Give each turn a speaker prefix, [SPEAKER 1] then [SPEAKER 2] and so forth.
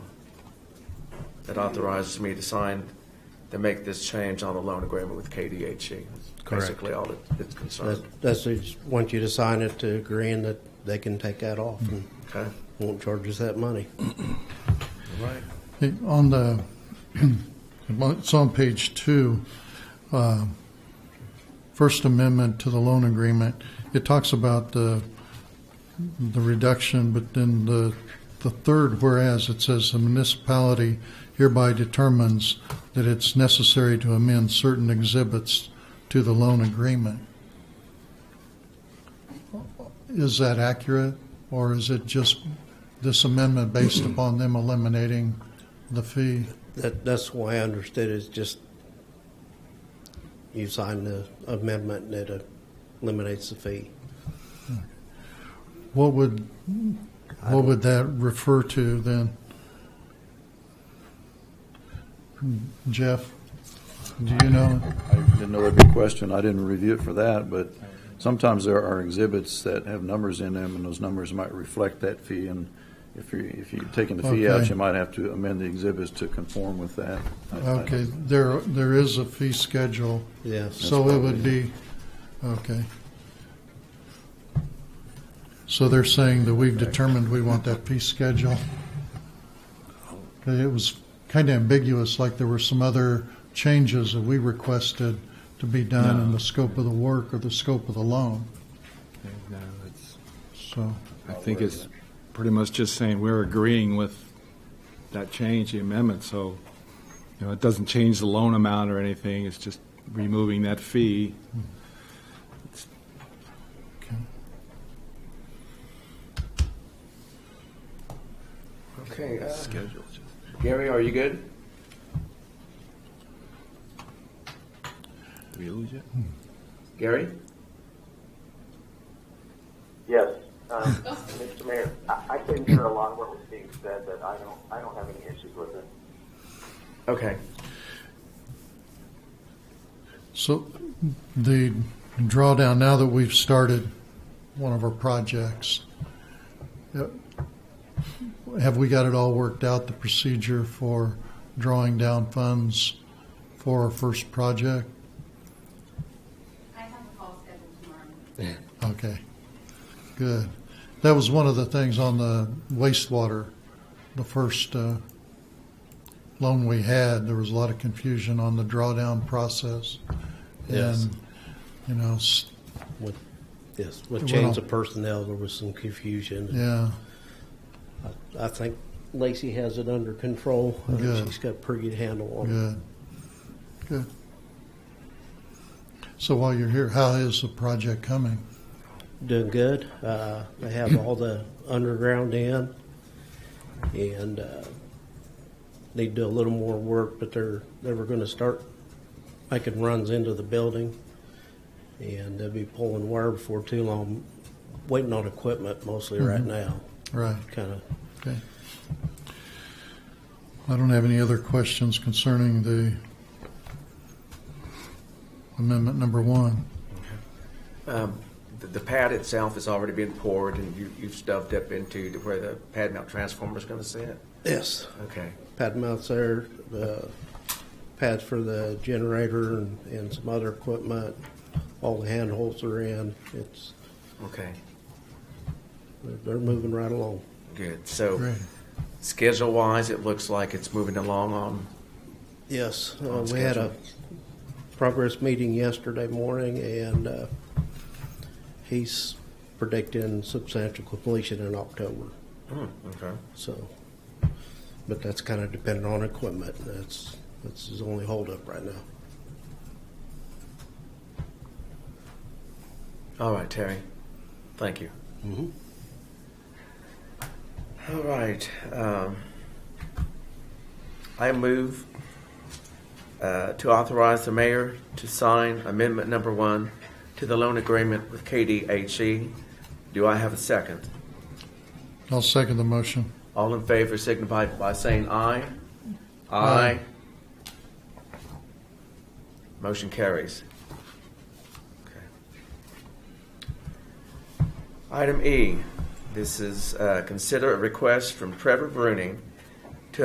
[SPEAKER 1] that authorizes me to sign, to make this change on the loan agreement with KDHE. E. That's
[SPEAKER 2] Correct.
[SPEAKER 1] Basically all that it's concerned,
[SPEAKER 2] That- That's, they just want you to sign it to agreeing that they can take that off and
[SPEAKER 1] okay?
[SPEAKER 2] won't charge us that money.
[SPEAKER 1] Right.
[SPEAKER 3] Hey, On the, it's on page two, uh, First Amendment to the loan agreement. It talks about the, the reduction, but then the, the third whereas, it says the municipality hereby determines that it's necessary to amend certain exhibits to the loan agreement. Is that accurate, or is it just this amendment based upon them eliminating the fee?
[SPEAKER 2] That, that's why I understood it's just you sign the amendment and it eliminates the fee.
[SPEAKER 3] What would, what would that refer to then? Jeff, do you know?
[SPEAKER 4] I didn't know that'd be a question. I didn't review it for that, but sometimes there are exhibits that have numbers in them, and those numbers might reflect that fee. And if you, if you're taking the fee out,
[SPEAKER 3] Okay.
[SPEAKER 4] you might have to amend the exhibits to conform with that. I- I-
[SPEAKER 3] Okay, there, there is a fee schedule,
[SPEAKER 2] Yes.
[SPEAKER 3] so it would be, okay. So they're saying that we've determined we want that fee schedule. Okay, It was kind of ambiguous, like there were some other changes that we requested to be done in the scope of the work or the scope of the loan,
[SPEAKER 5] No, uh, it's,
[SPEAKER 3] so.
[SPEAKER 5] I think it's pretty much just saying we're agreeing with that change, the amendment, so, you know, it doesn't change the loan amount or anything, it's just removing that fee.
[SPEAKER 3] okay.
[SPEAKER 1] Okay, uh,
[SPEAKER 5] Schedule.
[SPEAKER 1] Gary, are you good?
[SPEAKER 5] Did we lose it?
[SPEAKER 1] Gary?
[SPEAKER 6] Yes. Um, Mr. Mayor, I I couldn't hear a lot of what was being said, but I don't, I don't have any issues with it.
[SPEAKER 1] Okay,
[SPEAKER 3] So the drawdown, now that we've started one of our projects, uh, have we got it all worked out, the procedure for drawing down funds for our first project?
[SPEAKER 7] I have a call scheduled tomorrow.
[SPEAKER 3] Okay, good. That was one of the things on the wastewater, the first uh, loan we had, there was a lot of confusion on the drawdown process.
[SPEAKER 2] Yes.
[SPEAKER 3] And, you know, s-
[SPEAKER 2] With, yes, with
[SPEAKER 3] Well-
[SPEAKER 2] change of personnel, there was some confusion.
[SPEAKER 3] yeah.
[SPEAKER 2] I think Lacey has it under control. I think
[SPEAKER 3] Good.
[SPEAKER 2] She's got a pretty good handle on it.
[SPEAKER 3] Good. Good. So while you're here, how is the project coming?
[SPEAKER 2] Doing good. Uh, They have all the underground in. And uh, they do a little more work, but they're, they were going to start making runs into the building. And they'll be pulling wire before too long, waiting on equipment mostly right now.
[SPEAKER 3] Right,
[SPEAKER 2] Kind of
[SPEAKER 3] okay. I don't have any other questions concerning the amendment number one.
[SPEAKER 1] The- the pad itself has already been poured and you, you've stubbed up into to where the pad mount transformer's gonna sit?
[SPEAKER 2] Yes,
[SPEAKER 1] Okay,
[SPEAKER 2] pad mounts there, the pads for the generator and, and some other equipment. All the handholds are in. It's,
[SPEAKER 1] okay,
[SPEAKER 2] they're- they're moving right along.
[SPEAKER 1] good. So
[SPEAKER 3] Great.
[SPEAKER 1] schedule-wise, it looks like it's moving along on,
[SPEAKER 2] Yes, uh,
[SPEAKER 1] On
[SPEAKER 2] we had a
[SPEAKER 1] schedule.
[SPEAKER 2] progress meeting yesterday morning and, uh, he's predicting substantial completion in October,
[SPEAKER 1] hmm, okay.
[SPEAKER 2] so. But that's kind of dependent on equipment. That's, that's his only holdup right now.
[SPEAKER 1] All right, Terry. Thank you. All right. Um, I move uh, to authorize the mayor to sign amendment number one to the loan agreement with KDHE. E. Do I have a second?
[SPEAKER 3] I'll second the motion.
[SPEAKER 1] All in favor signify by saying aye.
[SPEAKER 3] Aye.
[SPEAKER 1] Motion carries. Okay. Item E, this is, uh, consider a request from Trevor Bruning